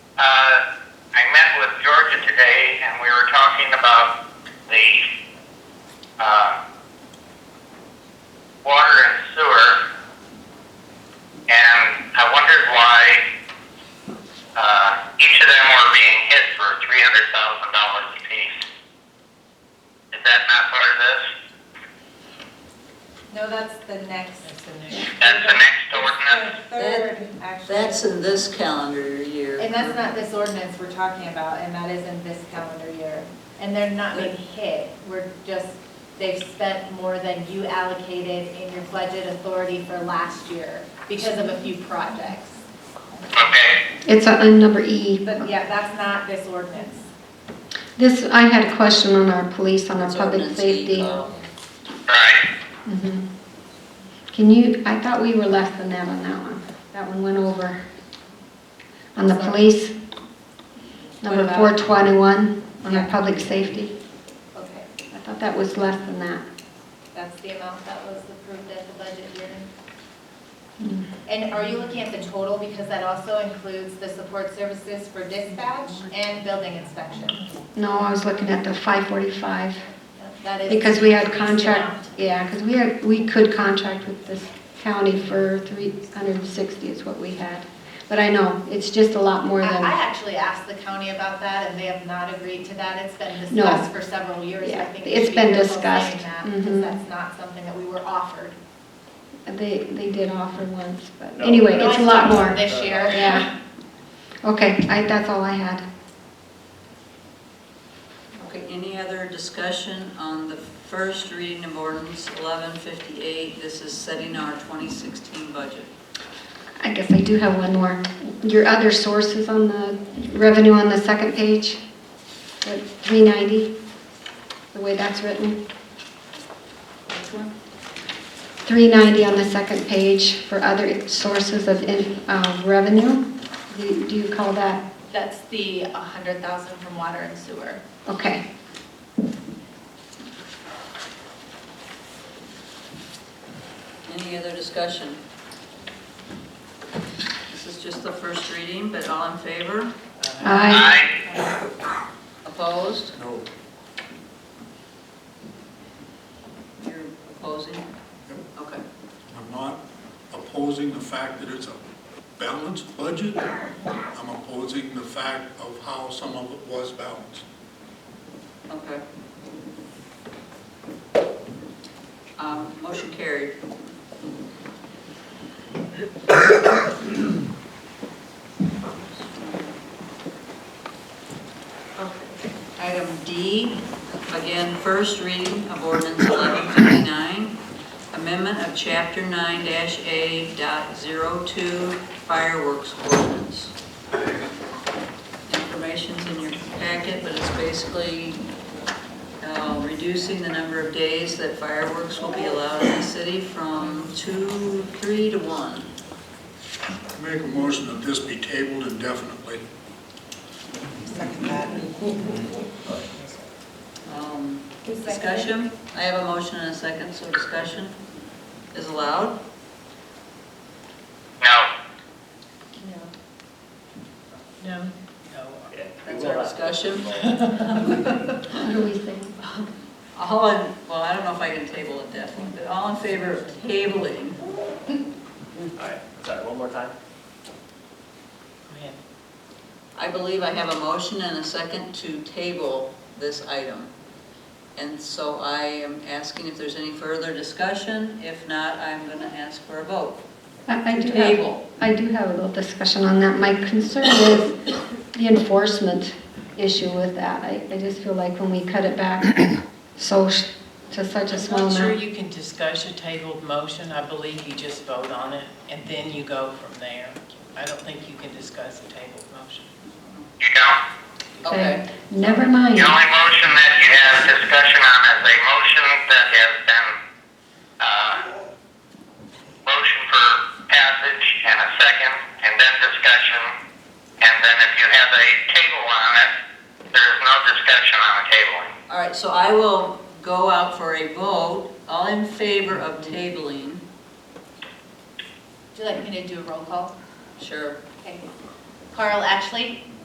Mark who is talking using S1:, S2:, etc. S1: uh, I met with Georgia today and we were talking about the, uh, water and sewer. And I wondered why, uh, each of them were being hit for three hundred thousand dollars apiece. Is that not part of this?
S2: No, that's the next.
S1: That's the next ordinance?
S2: Third, actually.
S3: That's in this calendar year.
S2: And that's not this ordinance we're talking about, and that is in this calendar year. And they're not being hit, we're just, they've spent more than you allocated in your budget authority for last year because of a few projects.
S1: Okay,
S4: It's on number E.
S2: But yeah, that's not this ordinance.
S4: This, I had a question on our police, on our
S3: It's
S4: public
S3: ordinance
S4: safety.
S3: E-call.
S1: right.
S4: Mhm. Can you, I thought we were less than that on that one. That one went over. On the police, number
S2: What about-
S4: 421, on our
S2: Yeah.
S4: public safety.
S2: Okay,
S4: I thought that was less than that.
S2: that's the amount that was approved at the budget hearing.
S4: Hmm.
S2: And are you looking at the total, because that also includes the support services for dispatch and building inspection?
S4: No, I was looking at the 545.
S2: That is.
S4: Because we had
S2: the amount.
S4: contract, yeah, because we had, we could contract with this county for 360 is what we had. But I know, it's just a lot more
S2: I I
S4: than,
S2: actually asked the county about that, and they have not agreed to that. It's been
S4: No.
S2: discussed for several years. I
S4: Yeah,
S2: think we
S4: it's
S2: should be
S4: been
S2: careful
S4: discussed.
S2: saying that,
S4: Mhm.
S2: Because that's not something that we were offered.
S4: they, they did offer once, but
S5: No.
S4: anyway,
S2: No,
S4: it's a lot
S2: talked
S4: more.
S2: This year.
S4: Yeah. Okay, I, that's all I had.
S3: Okay, any other discussion on the first reading of ordinance 1158? This is setting our 2016 budget.
S4: I guess I do have one more. Your other sources on the revenue on the second page, the 390, the way that's written.
S3: Which one?
S4: 390 on the second page for other sources of in- uh, revenue. Do do you call that,
S2: That's the 100,000 from water and sewer.
S4: okay.
S3: Any other discussion? This is just the first reading, but all in favor?
S4: Aye.
S1: Aye.
S3: Opposed?
S5: No.
S3: You're opposing? Okay.
S5: I'm not opposing the fact that it's a balanced budget. I'm opposing the fact of how some of it was balanced.
S3: Okay. Um, Motion carried. Item D, again, first reading of ordinance 1159, amendment of Chapter 9-A dot 02 fireworks ordinance. Information's in your packet, but it's basically uh, reducing the number of days that fireworks will be allowed in the city from two, three to one.
S5: Make a motion that this be tabled indefinitely.
S3: Um,
S2: Who seconded?
S3: Discussion, I have a motion and a second, so discussion is allowed.
S1: No.
S3: No.
S6: Yeah, we
S3: That's
S6: will
S3: our
S6: have to-
S3: discussion.
S4: What do we think?
S3: All in, well, I don't know if I can table it definitely, but all in favor of tabling,
S6: All right, sorry, one more time?
S3: I believe I have a motion and a second to table this item. And so I am asking if there's any further discussion. If not, I'm going to ask for a vote.
S4: I I do have,
S3: Table.
S4: I do have a little discussion on that. My concern is the enforcement issue with that. I, I just feel like when we cut it back so, sh- to such a
S7: I'm
S4: small
S7: not sure
S4: amount.
S7: you can discuss a tabled motion, I believe you just vote on it, and then you go from there. I don't think you can discuss a tabled motion.
S1: You don't.
S3: Okay.
S4: Never mind.
S1: The only motion that you have discussion on is a motion that has been, uh, motion for passage and a second, and then discussion. And then if you have a table on it, there is no discussion on the tabling.
S3: All right, so I will go out for a vote. All in favor of tabling?
S2: Would you like me to do a roll call?
S3: Sure.
S2: Okay. Carl Ashley?